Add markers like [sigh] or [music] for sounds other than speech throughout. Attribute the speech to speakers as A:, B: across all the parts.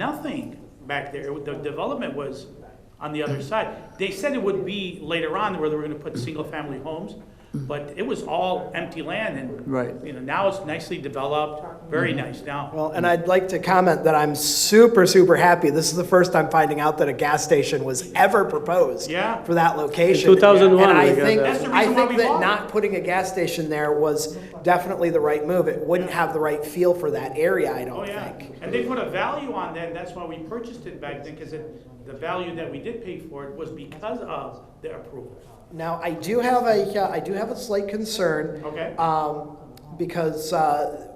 A: nothing back there. The development was on the other side. They said it would be later on where they were gonna put single-family homes, but it was all empty land and.
B: Right.
A: You know, now it's nicely developed, very nice now.
C: Mm-hmm. Well, and I'd like to comment that I'm super, super happy. This is the first I'm finding out that a gas station was ever proposed
A: Yeah.
C: for that location.
D: 2001
C: And I
D: we got
C: think,
D: that.
A: That's the
C: I
A: reason why
C: think
A: we
C: that
A: bought it.
C: not putting a gas station there was definitely the right move. It wouldn't have the right feel for that area, I
A: Oh,
C: don't
A: yeah.
C: think.
A: And they put a value on that, and that's why we purchased it back then, because it, the value that we did pay for it was because of the approval.
C: Now, I do have a, uh, I do have a slight concern.
A: Okay?
C: um, because uh,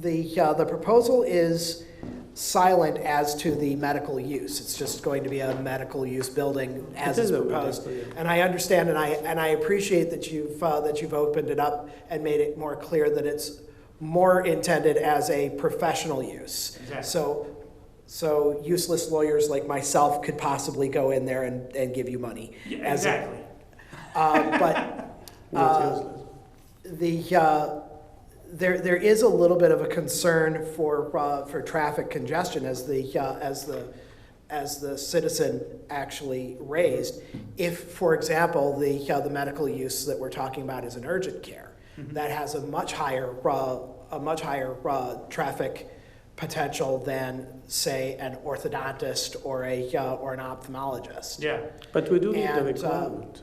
C: the, uh, the proposal is silent as to the medical use. It's just going to be a medical use building as
D: It
C: is
D: is a medical
C: proposed.
D: use.
C: And I understand, and I, and I appreciate that you've, uh, that you've opened it up and made it more clear that it's more intended as a professional use.
A: Exactly.
C: So, so useless lawyers like myself could possibly go in there and, and give you money.
A: Yeah,
C: as a-
A: Exactly.
C: uh, But uh, the, uh, there, there is a little bit of a concern for, uh, for traffic congestion as the, uh, as the, as the citizen actually raised. If, for example, the, uh, the medical use that we're talking about is an urgent care, that has a much higher, uh, a much higher uh, traffic potential than, say, an orthodontist or a, uh, or an ophthalmologist.
A: Yeah.
D: But we do need the
C: And, uh,
D: requirement.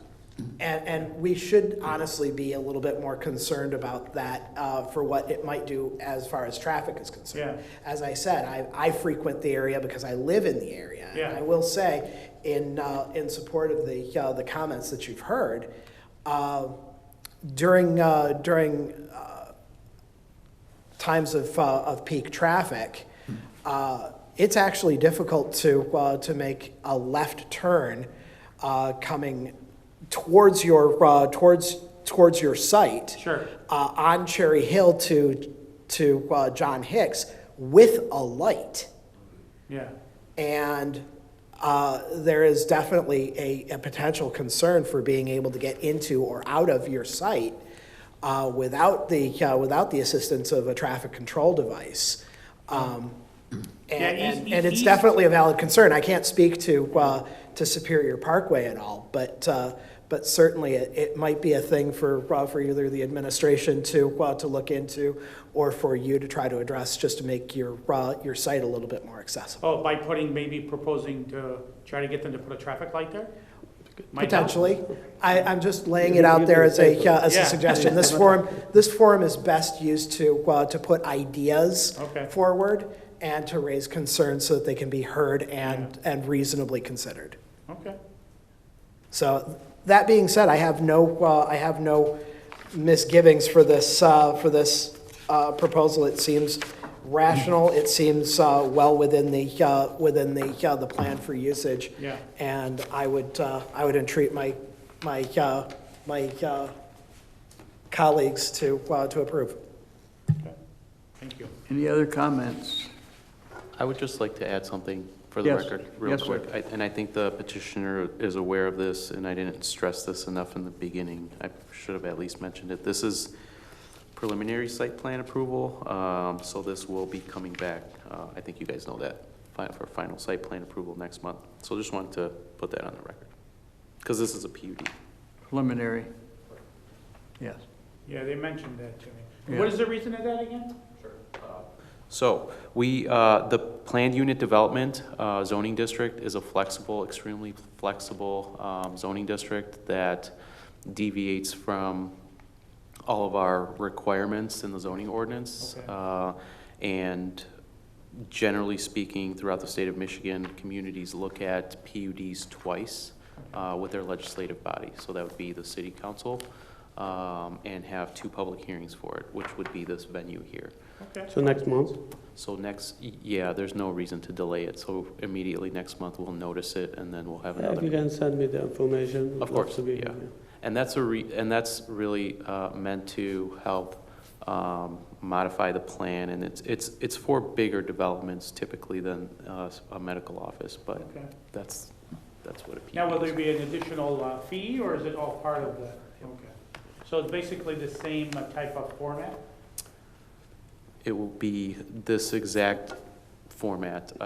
C: And, and we should honestly be a little bit more concerned about that uh, for what it might do as far as traffic is concerned. As I said, I, I frequent the area because I live in the area. And
A: Yeah.
C: I will say, in, uh, in support of the, uh, the comments that you've heard, uh, during, uh, during uh, times of, uh, of peak traffic, uh, it's actually difficult to, uh, to make a left turn uh, coming towards your, uh, towards, towards your site.
A: Sure.
C: Uh, on Cherry Hill to, to uh, John Hicks with a light.
A: Yeah.
C: And uh, there is definitely a, a potential concern for being able to get into or out of your site uh, without the, uh, without the assistance of a traffic control device. Um,
A: Yeah,
C: And,
A: eas-
C: and- and it's
A: eas-
C: definitely a valid concern. I can't speak to, uh, to Superior Parkway at all, but, uh, but certainly it, it might be a thing for, uh, for either the administration to, uh, to look into or for you to try to address, just to make your, uh, your site a little bit more accessible.
A: Oh, by putting, maybe proposing to try to get them to put a traffic light there? Might help.
C: Potentially. I, I'm just laying
D: You-
C: it out
D: you
C: there
D: can
C: as a,
D: say
C: uh, as
A: Yeah.
C: a
A: [laughs]
C: suggestion. This forum, this forum is best used to, uh, to put ideas
A: Okay.
C: forward and to raise concerns so that they can be heard and, and reasonably considered.
A: Okay.
C: So that being said, I have no, uh, I have no misgivings for this, uh, for this uh, proposal. It seems rational, it seems uh, well within the, uh, within the, uh, the plan for usage.
A: Yeah.
C: And I would, uh, I would entreat my, my, uh, my uh, colleagues to, uh, to approve.
A: Thank you.
B: Any other comments?
E: I would just like to add something for the
B: Yes.
E: record, real
B: Yes, sir.
E: quick. I- And I think the petitioner is aware of this, and I didn't stress this enough in the beginning. I should have at least mentioned it. This is preliminary site plan approval, um, so this will be coming back. uh, I think you guys know that, fi- for final site plan approval next month. So just wanted to put that on the record, because this is a PUD.
B: Preliminary? Yes.
A: Yeah, they mentioned that to me.
B: Yeah.
A: What is the reason of that again?
E: So, we, uh, the planned unit development uh, zoning district is a flexible, extremely flexible um, zoning district that deviates from all of our requirements in the zoning ordinance.
A: Okay.
E: Uh, And generally speaking, throughout the state of Michigan, communities look at PUDs twice uh, with their legislative body. So that would be the city council um, and have two public hearings for it, which would be this venue here.
A: Okay.
D: So next month?
E: So next, y- yeah, there's no reason to delay it, so immediately next month, we'll notice it, and then we'll have
D: Yeah,
E: another.
D: If you
E: meeting.
D: can send me the information.
E: Of
D: we'd love
E: course,
D: to be
E: yeah.
D: here.
E: And that's a re, and that's really uh, meant to help um, modify the plan, and it's, it's, it's for bigger developments typically than uh, a medical office, but
A: Okay.
E: that's, that's what a PUD
A: Now, will
E: is.
A: there be an additional uh, fee, or is it all part of the, okay. So it's basically the same uh, type of format?
E: It will be this exact format,